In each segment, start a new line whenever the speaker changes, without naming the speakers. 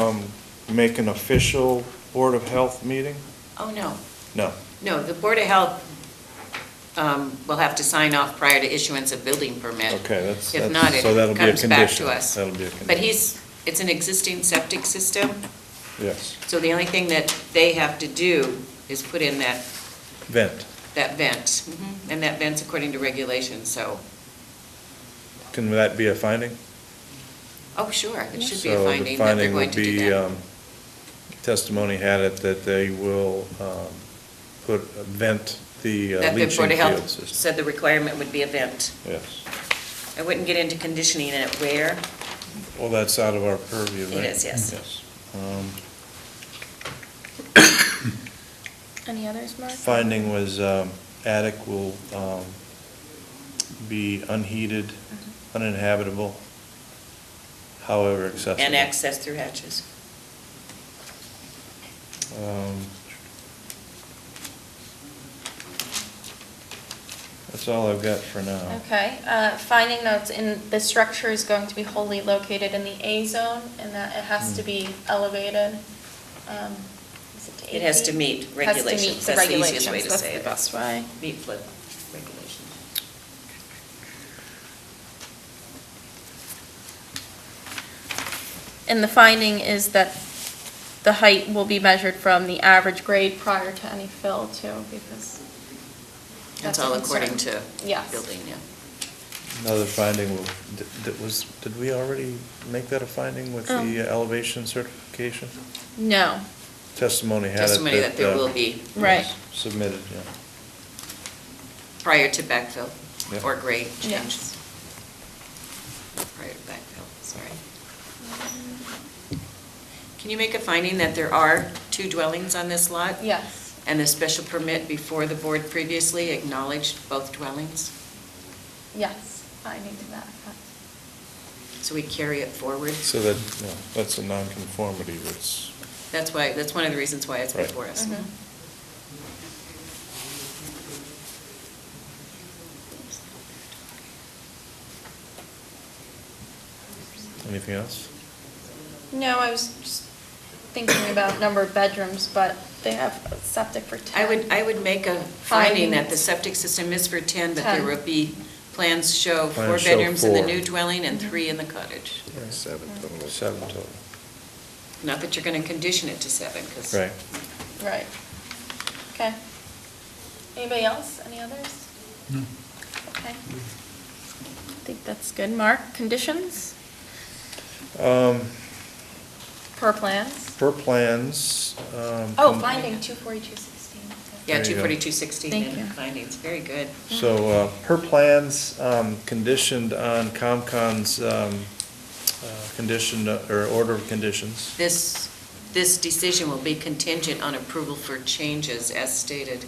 um, make an official Board of Health meeting?
Oh, no.
No.
No, the Board of Health um, will have to sign off prior to issuance of building permit.
Okay, that's,
If
that's-
not, it
so that'll be a
comes back
condition.
to us.
That'll be a
But
condition.
he's, it's an existing septic system,
Yes,
so the only thing that they have to do is put in that,
vent,
that vent. And that vent's according to regulations, so,
can that be a finding?
oh, sure, it should be a
So the
finding that they're
finding would
going to do
be,
that.
um, Testimony had it that they will um, put, vent the uh,
That the
leaching
Board of
field
Health
system.
said the requirement would be a vent.
Yes,
I wouldn't get into conditioning and at where,
well, that's out of our purview,
It
right?
is, yes.
Yes. Um,
Any others, Mark?
Finding was um, attic will um, be unheated,
Mm-hmm.
uninhabitable, however accessible.
and access through hatches.
Um, That's all I've got for now.
Okay, uh, finding notes in, the structure is going to be wholly located in the A zone and that it has to be elevated. um, is to
It has
8
to
feet?
meet
Has to meet
regulations. That's the easiest way
regulations.
to
That's
say
the
it.
best way.
Meat flip regulation.
And the finding is that the height will be measured from the average grade prior to any fill too, because.
That's
a
all
concern.
according to
Yes.
building, yeah.
Another finding, will- th- that was, did we already make that a finding with
Um.
the elevation certification?
No,
Testimony had it that.
Testimony that there
uh,
will be
Right.
Submitted, yeah.
prior to backfill
Yeah.
or grade change.
yes.
Prior to backfill, sorry. Can you make a finding that there are two dwellings on this lot?
Yes,
And the special permit before the board previously acknowledged both dwellings?
yes, finding to that effect.
So we carry it forward?
So that, yeah, that's a nonconformity that's,
That's why, that's one of the reasons why it's
Right.
before us.
Mhm.
anything else?
No, I was just thinking about number of bedrooms, but they have septic for ten.
I would, I would make a finding that the
Finding.
septic system is for 10, but there
Ten.
will be, plans show four
Plans show
bedrooms in the
four.
new dwelling and three in the cottage.
Seven
Mm.
total.
Seven total,
Not that you're going to condition it to seven, because.
right.
Right. Okay. Anybody else? Any others? No. Okay. I think that's good. Mark, conditions
Um,
per plans?
Per plans. um,
Oh,
com-
finding two forty-two sixteen.
Yeah,
There you go.
24216
Thank you.
and findings, very good.
So, uh, per plans, um, conditioned on COMCON's, um, uh, condition, uh, or order of conditions.
This, this decision will be contingent on approval for changes as stated.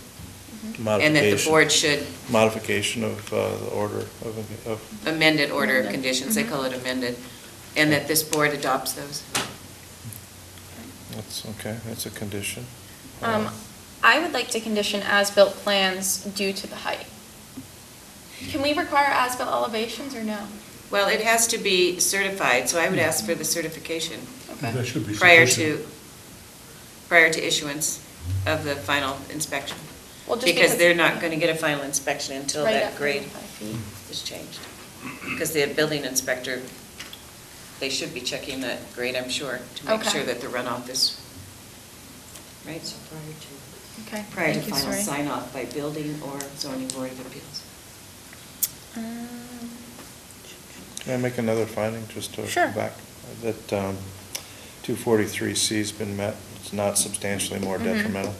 And that the
modification-
board should
Modification of, uh, the order of, of,
amended order of
Amended.
conditions, they
Mhm.
call it amended, and that this board adopts those.
that's, okay, that's a condition. Uh,
Um, I would like to condition as-built plans due to the height. Can we require as-built elevations or no?
Well, it has to be certified, so I
Mm.
would ask for the certification.
Okay.
That should be
Prior
sufficient.
to, prior to issuance of the final inspection.
Well, just
Because
because-
they're not going to get a final inspection until
Right
that
up to
grade
five feet.
is changed. Because the building inspector, they should be checking that grade, I'm sure, to make
Okay.
sure that the runoff is, right?
Okay.
Prior to
thank you,
final
sorry.
sign off by building or zoning board of appeals.
Mm. Um,
Can I make another finding, just to
Sure.
go back? That um, 243C's been met, it's not substantially more
Mm-hmm.
Mhm.
detrimental.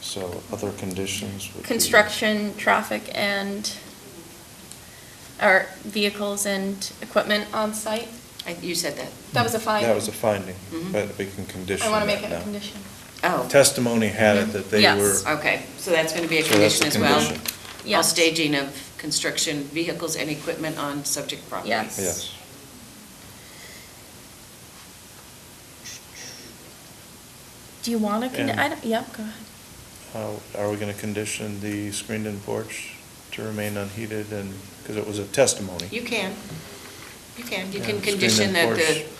So other conditions would be...
Construction, traffic, and, or vehicles and equipment on site?
I- You said that.
That was a finding. Mm-hmm.
That was a finding,
Mhm.
but we can condition
I want to make
that
it a
now.
condition.
Oh.
Testimony had it that they
Yes.
were...
Okay, so that's going to be a
So that's
condition
a
as well?
condition.
All
Yes.
staging of construction vehicles and equipment on subject property?
Yes.
Yes.
Do you want to,
And-
condi- I don't, yeah, go ahead.
How- Are we going to condition the screened-in porch to remain unheated and, because it was a testimony?
You can, you can, you
Yeah,
can
screen
condition
and
that the
porch.